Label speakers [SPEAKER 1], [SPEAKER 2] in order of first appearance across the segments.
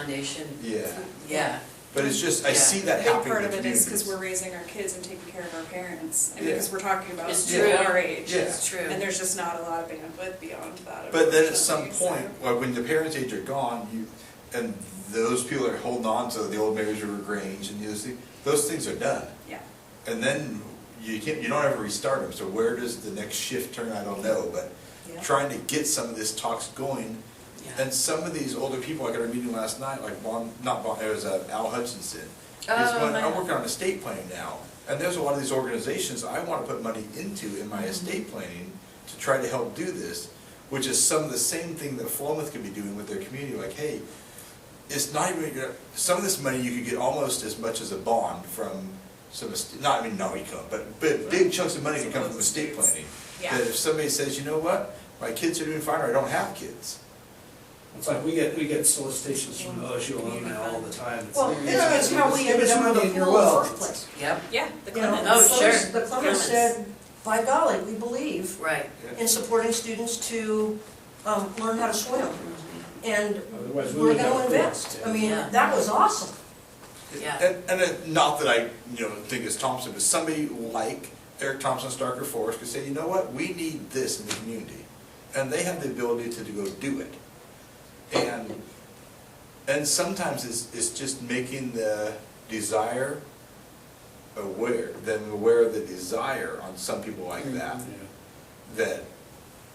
[SPEAKER 1] foundation,
[SPEAKER 2] Yeah,
[SPEAKER 1] yeah.
[SPEAKER 2] but it's just, I
[SPEAKER 1] Yeah.
[SPEAKER 2] see that
[SPEAKER 3] A big
[SPEAKER 2] happening
[SPEAKER 3] part
[SPEAKER 2] in
[SPEAKER 3] of it is because
[SPEAKER 2] communities.
[SPEAKER 3] we're raising our kids and taking care of our parents, I mean,
[SPEAKER 2] Yeah.
[SPEAKER 3] because we're talking about
[SPEAKER 1] It's
[SPEAKER 3] people
[SPEAKER 1] true.
[SPEAKER 3] our age.
[SPEAKER 2] Yeah.
[SPEAKER 1] It's true.
[SPEAKER 3] And there's just not a lot of bandwidth beyond that.
[SPEAKER 2] But then at some
[SPEAKER 3] unfortunately,
[SPEAKER 2] point,
[SPEAKER 3] so-
[SPEAKER 2] well, when the parents' age are gone, you, and those people are holding on to the old Mary's River Grange and those things, those things are done.
[SPEAKER 3] Yeah,
[SPEAKER 2] And then you can't, you don't ever restart them, so where does the next shift turn, I don't know, but
[SPEAKER 1] Yeah.
[SPEAKER 2] trying to get some of this talks going.
[SPEAKER 1] Yeah.
[SPEAKER 2] And some of these older people, like at our meeting last night, like Bon, not Bon, it was uh, Al Hutchinson. He's
[SPEAKER 1] Oh,
[SPEAKER 2] going,
[SPEAKER 1] I know.
[SPEAKER 2] I'm working on estate planning now, and there's a lot of these organizations I wanna put money into in my
[SPEAKER 1] Mm-hmm.
[SPEAKER 2] estate planning to try to help do this, which is some of the same thing that Philomath could be doing with their community, like, hey, it's not even, you know, some of this money you could get almost as much as a bond from some, est- not, I mean, no, you can't, but, but big chunks of money can come from estate planning.
[SPEAKER 3] Yeah.
[SPEAKER 2] That if somebody says, you know what, my kids are doing fine, or I don't have kids.
[SPEAKER 4] It's like, we get, we get solicitations from OSU alumni all the time. It's
[SPEAKER 5] Well,
[SPEAKER 4] like,
[SPEAKER 5] that's that's how we
[SPEAKER 4] give
[SPEAKER 5] ended
[SPEAKER 4] us
[SPEAKER 5] up
[SPEAKER 4] money
[SPEAKER 5] with
[SPEAKER 4] in
[SPEAKER 5] the
[SPEAKER 4] your
[SPEAKER 5] pool in the
[SPEAKER 4] will.
[SPEAKER 5] first place.
[SPEAKER 1] Yep,
[SPEAKER 3] yeah, the
[SPEAKER 5] You know,
[SPEAKER 3] Clemens.
[SPEAKER 5] the
[SPEAKER 1] Oh,
[SPEAKER 5] Clemens-
[SPEAKER 1] sure.
[SPEAKER 5] The Clemens
[SPEAKER 1] Clemens.
[SPEAKER 5] said, by golly, we believe
[SPEAKER 1] right.
[SPEAKER 5] in supporting students to um, learn how to swim. And
[SPEAKER 4] Otherwise, we
[SPEAKER 5] we're
[SPEAKER 4] would
[SPEAKER 5] gonna
[SPEAKER 4] have to-
[SPEAKER 5] invest. I mean,
[SPEAKER 1] Yeah.
[SPEAKER 5] that was awesome.
[SPEAKER 1] Yeah.
[SPEAKER 2] And, and it- not that I, you know, think it's Thompson, but somebody like Eric Thompson, Starker Forest could say, you know what, we need this in the community. And they have the ability to go do it. And, and sometimes it's, it's just making the desire aware, then aware of the desire on some people like that.
[SPEAKER 4] Yeah.
[SPEAKER 2] that,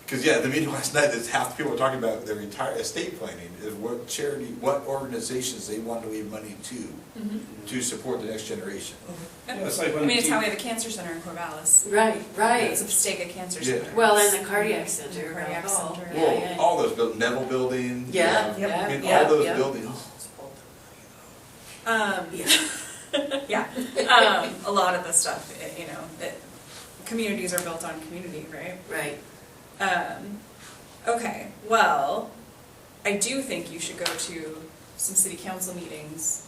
[SPEAKER 2] because yeah, the meeting last night, that's half the people were talking about their entire estate planning, is what charity, what organizations they want to leave money to, to support the next generation.
[SPEAKER 4] Yeah, it's like
[SPEAKER 3] I
[SPEAKER 4] when
[SPEAKER 3] mean, it's
[SPEAKER 4] the-
[SPEAKER 3] how we have a cancer center in Corvallis.
[SPEAKER 1] Right,
[SPEAKER 3] It's a Stega Cancer
[SPEAKER 2] Yeah.
[SPEAKER 3] Center.
[SPEAKER 1] Well, and the cardiac
[SPEAKER 3] And
[SPEAKER 1] center. Oh.
[SPEAKER 3] cardiac
[SPEAKER 1] Bell Hall.
[SPEAKER 3] center.
[SPEAKER 1] Yeah,
[SPEAKER 2] Well,
[SPEAKER 1] yeah.
[SPEAKER 2] all those, buil- Neville Building. you
[SPEAKER 1] Yeah,
[SPEAKER 2] know,
[SPEAKER 1] yeah,
[SPEAKER 2] I mean,
[SPEAKER 1] yeah,
[SPEAKER 2] all those
[SPEAKER 1] yeah.
[SPEAKER 2] buildings.
[SPEAKER 3] Um, yeah, um, a lot of the stuff, eh, you know, that communities are built on community, right?
[SPEAKER 1] Right,
[SPEAKER 3] Um, okay, well, I do think you should go to some city council meetings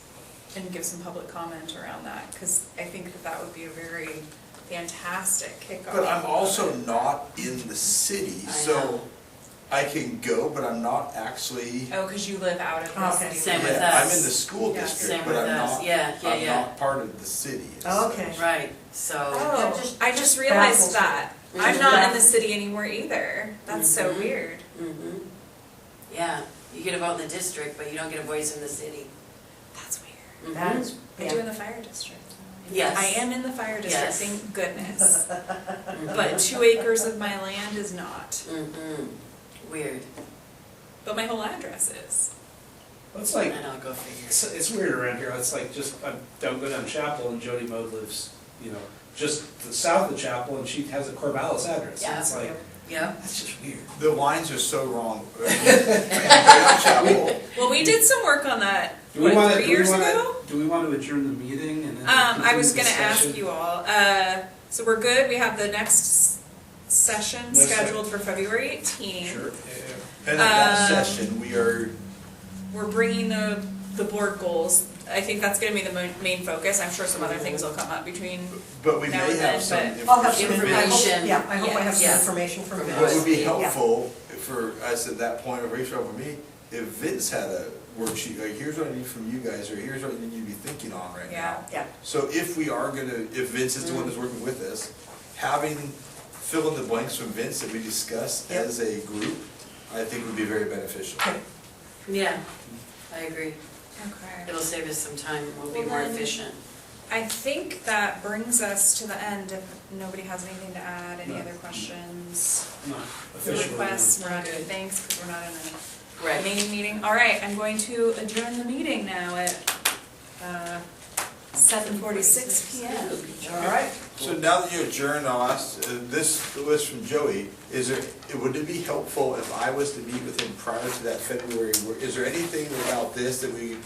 [SPEAKER 3] and give some public comment around that, because I think that that would be a very fantastic kickoff.
[SPEAKER 2] But I'm also not in the city,
[SPEAKER 1] I
[SPEAKER 2] so
[SPEAKER 1] know.
[SPEAKER 2] I can go, but I'm not actually,
[SPEAKER 3] Oh, because you live out of the
[SPEAKER 5] Okay.
[SPEAKER 3] city.
[SPEAKER 1] Same with
[SPEAKER 2] yeah, I'm
[SPEAKER 1] us.
[SPEAKER 2] in the school
[SPEAKER 3] Yeah,
[SPEAKER 2] district,
[SPEAKER 1] same
[SPEAKER 2] but
[SPEAKER 1] with
[SPEAKER 2] I'm
[SPEAKER 1] us.
[SPEAKER 2] not,
[SPEAKER 1] Yeah, yeah,
[SPEAKER 2] I'm
[SPEAKER 1] yeah. Oh,
[SPEAKER 2] not part of the city.
[SPEAKER 5] Okay.
[SPEAKER 1] right, so,
[SPEAKER 5] Oh,
[SPEAKER 3] Oh, I just realized
[SPEAKER 5] baffles.
[SPEAKER 3] that. I'm not in the city anymore either. That's so
[SPEAKER 2] Mm-hmm.
[SPEAKER 1] Mhm.
[SPEAKER 3] weird.
[SPEAKER 1] mhm. yeah, you get a vote in the district, but you don't get a voice in the city.
[SPEAKER 3] That's weird.
[SPEAKER 1] Mhm.
[SPEAKER 5] That is
[SPEAKER 3] I do
[SPEAKER 5] bad.
[SPEAKER 3] in the fire district.
[SPEAKER 1] Yes.
[SPEAKER 3] I am in the fire district,
[SPEAKER 1] Yes.
[SPEAKER 3] thank goodness.
[SPEAKER 1] Mhm.
[SPEAKER 3] But two acres of my land is not,
[SPEAKER 1] Mhm. Weird,
[SPEAKER 3] but my whole address is.
[SPEAKER 4] It's like,
[SPEAKER 1] and I'll go figure.
[SPEAKER 4] it's, it's weird around here, it's like just, I don't go down Chapel and Jody Mode lives, you know, just south of Chapel and she has a Corvallis address.
[SPEAKER 1] Yeah.
[SPEAKER 4] It's like,
[SPEAKER 1] Yeah,
[SPEAKER 4] that's just weird.
[SPEAKER 2] The lines are so wrong. Chapel.
[SPEAKER 3] Well, we did some work on that,
[SPEAKER 4] Do we
[SPEAKER 3] what,
[SPEAKER 4] wanna-
[SPEAKER 3] three
[SPEAKER 4] do we
[SPEAKER 3] years
[SPEAKER 4] wanna-
[SPEAKER 3] ago?
[SPEAKER 4] Do we want to adjourn the meeting and then?
[SPEAKER 3] Um, I was
[SPEAKER 4] continue
[SPEAKER 3] gonna
[SPEAKER 4] the
[SPEAKER 3] ask
[SPEAKER 4] session?
[SPEAKER 3] you all, uh, so we're good, we have the next s- session
[SPEAKER 4] Next session.
[SPEAKER 3] scheduled for February eighteenth.
[SPEAKER 4] Sure, yeah, yeah.
[SPEAKER 2] And at that
[SPEAKER 3] Um,
[SPEAKER 2] session, we are
[SPEAKER 3] We're bringing the, the board goals, I think that's gonna be the mo- main focus, I'm sure some other things will come up between,
[SPEAKER 2] But we may
[SPEAKER 3] now and
[SPEAKER 2] have
[SPEAKER 3] then,
[SPEAKER 2] some
[SPEAKER 3] but-
[SPEAKER 2] information.
[SPEAKER 5] I'll have some
[SPEAKER 1] Information.
[SPEAKER 5] information. Yeah, I hope I have
[SPEAKER 1] Yeah.
[SPEAKER 5] some information from
[SPEAKER 1] From
[SPEAKER 2] What
[SPEAKER 5] Vince.
[SPEAKER 2] would be
[SPEAKER 1] Yeah.
[SPEAKER 2] helpful for us at that point, or Rachel, for me, if Vince had a worksheet, like, here's what I need from you guys, or here's what I need you to be thinking on right
[SPEAKER 3] yeah.
[SPEAKER 2] now.
[SPEAKER 5] Yeah, Mm.
[SPEAKER 2] So if we are gonna, if Vince is the one that's working with us, having fill in the blanks from Vince that we discuss
[SPEAKER 5] Yep.
[SPEAKER 2] as a group, I think would be very beneficial.
[SPEAKER 5] okay.
[SPEAKER 1] yeah, I agree.
[SPEAKER 3] Okay.
[SPEAKER 1] It'll save us some time, we'll be
[SPEAKER 3] Well,
[SPEAKER 1] more
[SPEAKER 3] then-
[SPEAKER 1] efficient.
[SPEAKER 3] I think that brings us to the end, if nobody has anything to add, any
[SPEAKER 4] No.
[SPEAKER 3] other questions,
[SPEAKER 4] I'm not officially.
[SPEAKER 3] requests, we're not doing thanks, because we're not in a
[SPEAKER 1] Right,
[SPEAKER 3] main meeting. All right, I'm going to adjourn the meeting now at, uh, seven forty-six PM.
[SPEAKER 5] All right.
[SPEAKER 2] So now that you adjourned, I'll ask, uh, this was from Joey, is there, would it be helpful if I was to meet with him prior to that February? wor- Is there anything about this that we,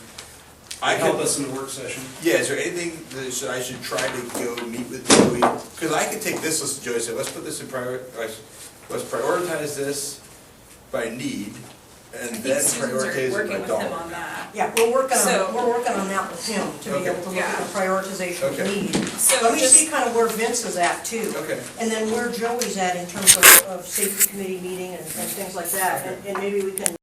[SPEAKER 2] I
[SPEAKER 4] Help
[SPEAKER 2] could,
[SPEAKER 4] us in the work session.
[SPEAKER 2] yeah, is there anything that should- I should try to go meet with Joey? Because I could take this list, of Joey and say, let's put this in prior, let's let's prioritize this by need
[SPEAKER 3] I
[SPEAKER 2] and
[SPEAKER 3] think
[SPEAKER 2] then
[SPEAKER 3] Susan's
[SPEAKER 2] prioritize
[SPEAKER 3] are
[SPEAKER 2] it
[SPEAKER 3] working
[SPEAKER 2] by
[SPEAKER 3] with him on
[SPEAKER 2] dollar.
[SPEAKER 3] that.
[SPEAKER 5] Yeah, we're working
[SPEAKER 3] So-
[SPEAKER 5] on, we're working on that with him to be
[SPEAKER 2] Okay.
[SPEAKER 5] able to look at
[SPEAKER 3] Yeah.
[SPEAKER 5] the prioritization of
[SPEAKER 2] Okay.
[SPEAKER 5] need.
[SPEAKER 3] So
[SPEAKER 5] Let me
[SPEAKER 3] just-
[SPEAKER 5] see kind of where Vince is at too.
[SPEAKER 2] Okay.
[SPEAKER 5] And then where Joey's at in terms of, of safety committee meeting and, and things like that. And, and maybe we can